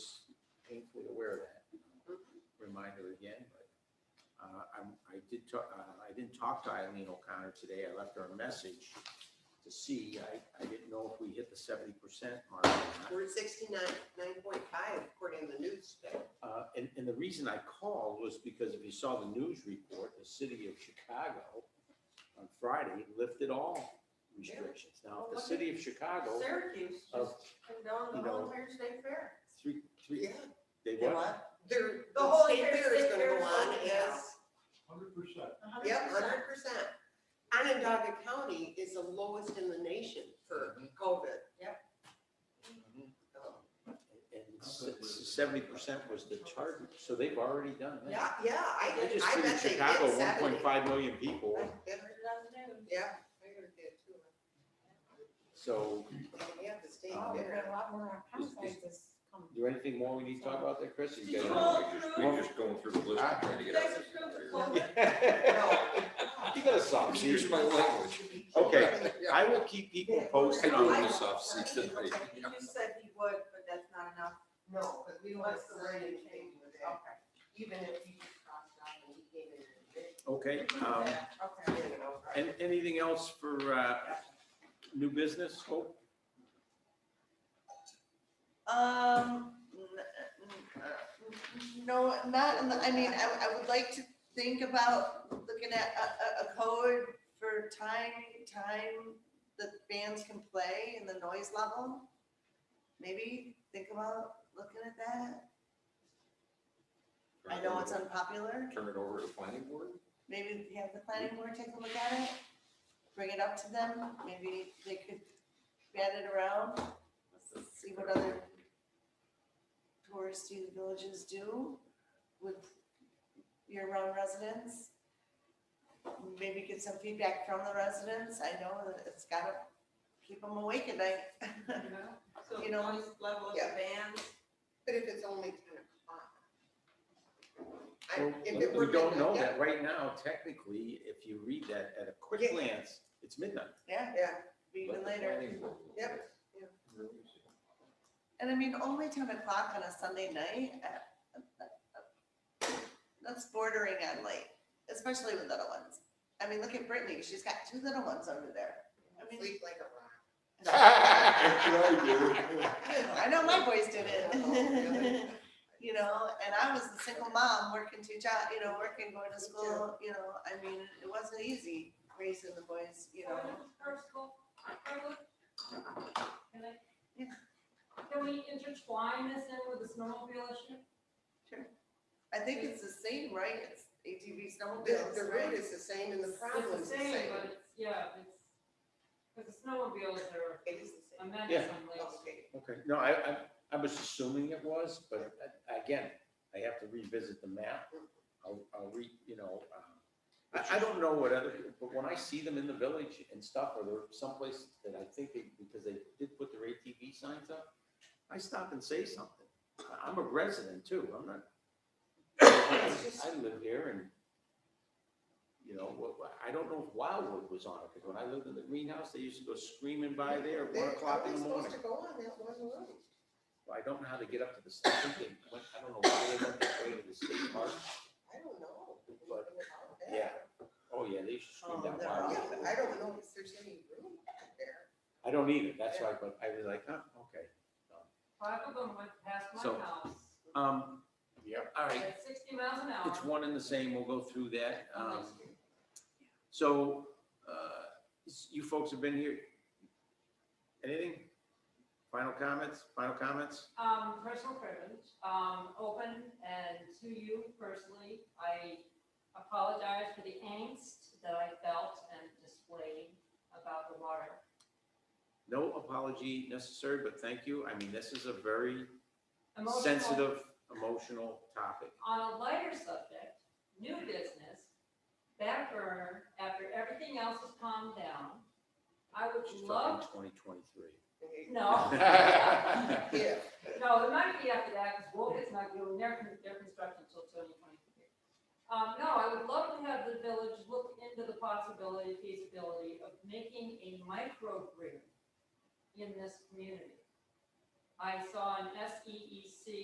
uh, I'm, I did talk, uh, I didn't talk to Eileen O'Connor today. I left her a message to see. I, I didn't know if we hit the seventy percent mark or not. We're at sixty-nine, nine point five according to the news. today. Uh, And, and the reason I called was because if you saw the news report, the city of Chicago on Friday lifted all restrictions. Now, if the city of Chicago, Oh. Syracuse just you condoned the know, whole entire state fair. three, three, Yeah. they what? They're, The whole state entire fair is state gonna fair go on, is- yeah. Hundred percent. A hundred Yep, percent. hundred percent. Onondaga County is the lowest in the nation for Mm-hmm. COVID. Yep. So, And seventy percent was the target, so they've already done that. Yeah. Yeah, I, I just I figured bet they Chicago, did one seventy. point five million people, I heard it on the news. Yeah, I heard that too. so And we have the state Oh, we fair. got a lot more Is- is- consequences coming. is there anything more we need to talk about there, Chris? You Did you got all it? We're just- We're just going through the list and trying to get Guys, it's going to out. close. No. You got a soft Excuse seat. my language. Okay, I will keep people posted I on do this. want a soft seat tonight. He just said he would, but that's not enough. No, because we don't What's want the to sign wording anything with that. Okay. Even if you just crossed out and he gave it a bit, Okay, um, Okay. you know. and anything else for, uh, new business, Hope? Um, n- n- no, not, in the- I mean, I, I would like to think about looking at a, a, a code for time, time that bands can play and the noise level. Maybe think about looking at that. I know it's unpopular. Turn it over to the planning board? Maybe have the planning board take a look at it, bring it up to them. Maybe they could bat it around, see what other touristy villages do with year-round residents. Maybe get some feedback from the residents. I know that it's gotta keep them awake at night. So You know, noise level of the yeah. band. But if it's only ten o'clock. I- Well, if it were We don't know midnight, that right now, technically, if you read that at a quick Yeah. glance, it's midnight. Yeah, Yeah, yeah. Let even the later. planning board look at it. And I mean, only ten o'clock on a Sunday night, uh, uh, uh, that's bordering on late, especially with little ones. I mean, look at Brittany, she's got two little ones over there. I mean, Sleep like a rock. I know my boys did it. Really? You know, and I was a single mom, working two jobs, you know, working, going to school, you know, I mean, it wasn't easy raising the boys, you know. First of all, Can I- Yeah. can we intertwine this in with the snowmobile issue? I think it's the same, right? It's ATV The, snowmobiles, the right? route is the same and the problem's the same. But it's, yeah, it's, because the snowmobiles are It is the a same. menace Yeah. on lakes. Okay. Okay, no, I, I, I was assuming it was, but again, I have to revisit the map. I'll, I'll re, you know, um, I, I don't know what other, but when I see them in the village and stuff, or they're someplace that I think they, because they did put their ATV signs up, I stop and say something. I- I'm a resident too, I'm not. I live here and, you know, what- what- I don't know if Wildwood was on it, because when I lived in the greenhouse, they used to go screaming by there at They're one o'clock in the always morning. Supposed to go on that one road. Well, I don't know how to get up to the, sta- I think they went, I don't know why they went that way to the state park. I don't know. anything But- about that. yeah. Oh, yeah, they should scream Oh, that they're wild. Yeah, but I don't know if there's any room out there. I don't either, that's why, but I was like, oh, okay. Five of them went past my So- house Um, all right, at sixty miles an it's hour. one and the same, we'll go through that. Um, Next year. so, uh, s- you folks have been here. Anything? Final comments, final comments? Um, personal privilege, um, open and to you personally, I apologize for the angst that I felt and displayed about the water. No apology necessary, but thank you. I mean, this is a very Emotional- sensitive, emotional topic. On a lighter subject, new business, back burner, after everything else has calmed down, I would She's love, talking twenty twenty-three. no. Yeah, No, it might be after that, because Wolcott not doing their, con- their construction until twenty twenty-three. Um, no, I would love to have the village look into the possibility, feasibility of making a E microgrid in this community. I saw an SEEC